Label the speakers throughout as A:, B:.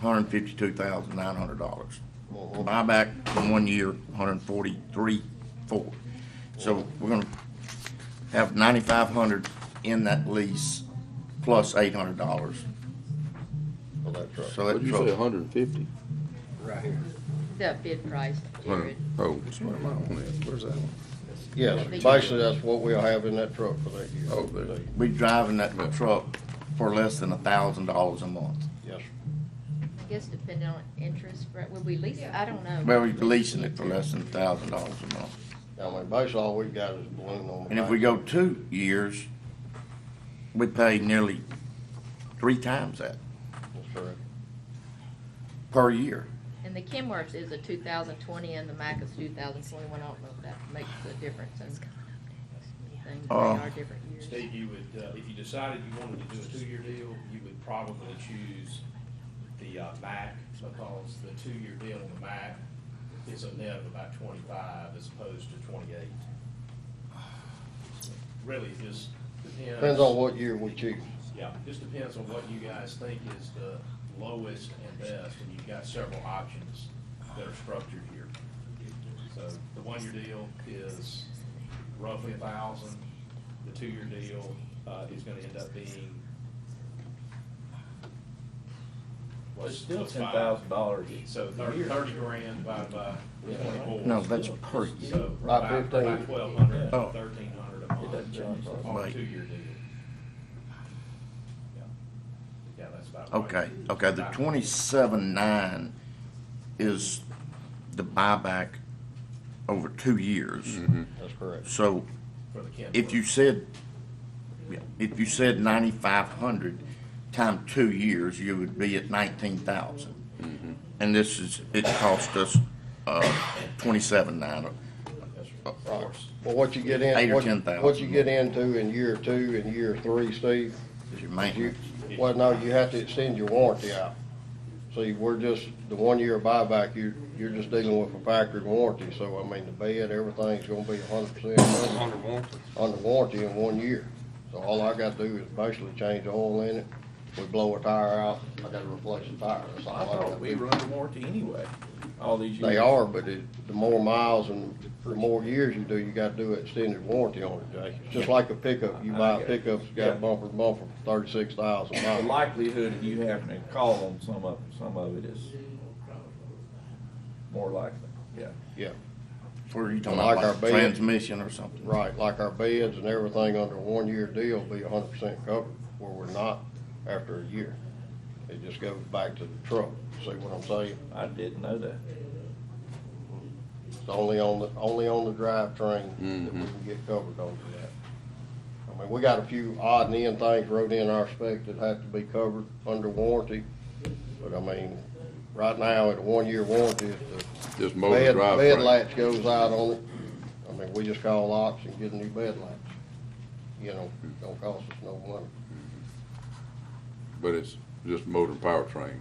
A: hundred and fifty-two thousand nine hundred dollars. Buyback from one year, hundred and forty-three, four. So we're gonna have ninety-five hundred in that lease plus eight hundred dollars.
B: on that truck.
A: So
C: What'd
A: that
C: you say,
A: truck,
C: hundred and fifty?
D: Right here.
E: The bid price, Jared.
C: Oh, where am I on it? Where's that one?
B: Yes, basically, that's what we'll have in that truck for that year.
C: Oh, there.
A: we driving that
C: Yeah.
A: truck for less than a thousand dollars a month.
B: Yes,
E: I guess depending on interest, right, would we lease, it? I don't know.
A: Well, we're leasing it for less than a thousand dollars a month.
B: I mean, basically, all we've got is balloon on the.
A: And if we
B: back.
A: go two years, we pay nearly three times that
B: That's correct.
A: per year.
E: And the Kenworth is a two thousand twenty and the Mack is two thousand twenty-one. I don't know if that makes a difference in things. They
A: Uh,
E: are different years.
F: Steve, you would, uh, if you decided you wanted to do a two-year deal, you would probably choose the, uh, MAC, because the two-year deal on the MAC is a net of about twenty-five as opposed to twenty-eight. Really, just depends.
B: Depends on what year we choose.
F: Yeah, just depends on what you guys think is the lowest and best, and you've got several options that are structured here. So the one-year deal is roughly a thousand, the two-year deal, uh, is gonna end up being.
G: It's
F: what's-
G: still
F: what's
G: ten
F: five?
G: thousand dollars.
F: So thirty, thirty grand by, by twenty-four.
A: No, that's per year.
F: So
B: By
F: by, by
B: 15.
F: twelve hundred,
A: Oh.
F: thirteen hundred a month
G: doesn't
F: on a
A: Right.
F: two-year deal. Yeah. Yeah, that's about right.
A: Okay, okay, the
F: About-
A: twenty-seven nine is the buyback over two years.
B: That's correct.
A: So
F: For the Kenworth.
A: if you said, yeah, if you said ninety-five hundred times two years, you would be at nineteen thousand.
B: Mm-hmm.
A: And this is, it cost us, uh, twenty-seven nine, uh,
F: Of course.
B: Well, what you get
A: Eight
B: in,
A: or
B: what,
A: 10,000.
B: what you get into in year two and year three, Steve,
A: is your
B: you,
A: maintenance.
B: well, no, you have to extend your warranty out. See, we're just, the one-year buyback, you, you're just dealing with a factory warranty, so I mean, the bed, everything's gonna be hundred percent
D: Under warranty.
B: under warranty in one year. So all I gotta do is basically change the oil in it, we blow a tire out, I gotta replace the tire, that's all
G: I
B: I gotta
G: thought
B: do.
G: we were under warranty anyway, all these years.
B: They are, but it, the more miles and the more years you do, you gotta do an extended warranty on it, Jay. It's just like a pickup, you buy a pickup, it's got a bumper, to bumper, thirty-six thousand
G: The
B: miles.
G: likelihood of you having to call on some of, some of it is more likely, yeah.
B: Yeah,
A: For you talking
B: Like
A: about
B: our
A: like
B: bed.
A: transmission or something?
B: right, like our beds and everything under a one-year deal be hundred percent covered, where we're not after a year. It just goes back to the truck, see what I'm saying?
G: I didn't know that.
B: It's only on the, only on the drivetrain that we can get covered under that. I mean, we got a few odd and end things wrote in our spec that have to be covered under warranty, but I mean, right now, at a one-year warranty, if
C: Just
B: the
C: motor
B: bed,
C: drive.
B: bed latch goes out on it, I mean, we just call ops and get a new bed latch. You know, don't cost us no money.
C: But it's just motor and powertrain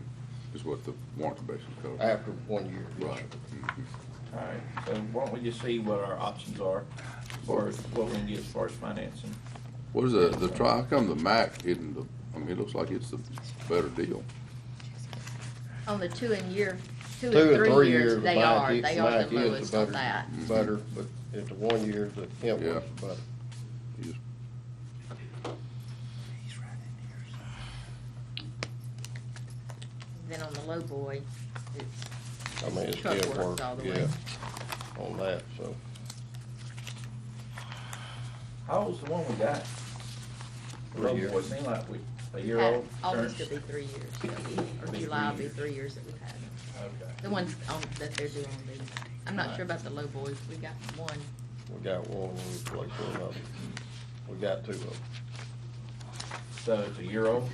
C: is what the warranty basis covers.
B: after one year. yes,
C: Right.
B: sir.
C: Mm-hmm.
G: All right, so why don't we just see what our options are, or what we can get as far as financing?
C: What is the, the tri, how come the Mac isn't the, I mean, it looks like it's the better deal.
E: On the two and year, two
B: Two
E: and three years,
B: the
E: they
B: back
E: are,
B: e-
E: they are
B: back
E: the
B: is the
E: lowest on
B: better-
E: that.
B: Better, but at the one year, the Kent was
C: Yeah.
B: better.
C: You just-
E: Then on the low boy, it's
B: I mean, it's
E: Truck
B: good
E: works
B: work,
E: all the
B: yeah,
E: way.
B: on that, so.
G: How old's the one we got?
B: Three
G: Well,
B: years.
G: it seemed like we, a year
E: had,
G: old.
E: August will
G: turns-
E: be three years, so, or July will be three years that we've had them.
G: Okay.
E: The ones on, that they're doing these. I'm not sure about the low boys. We got one.
B: We got one, we replaced another. We got two of them.
G: So it's a year old,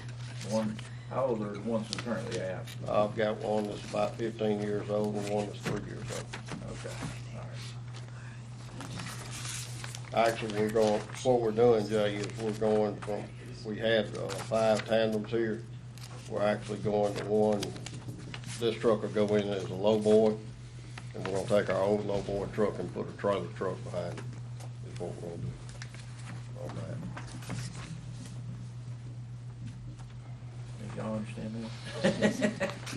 G: one, how old are the ones we currently have?
B: I've got one that's about fifteen years old and one that's three years old.
G: Okay, all right.
B: Actually, we're going, what we're doing, Jay, is we're going from, we had, uh, five tandems here. We're actually going to one, this truck will go in as a lowboy, and we're gonna take our old lowboy truck and put a trailer truck behind it, is what we're gonna do on that.
G: Y'all understand that?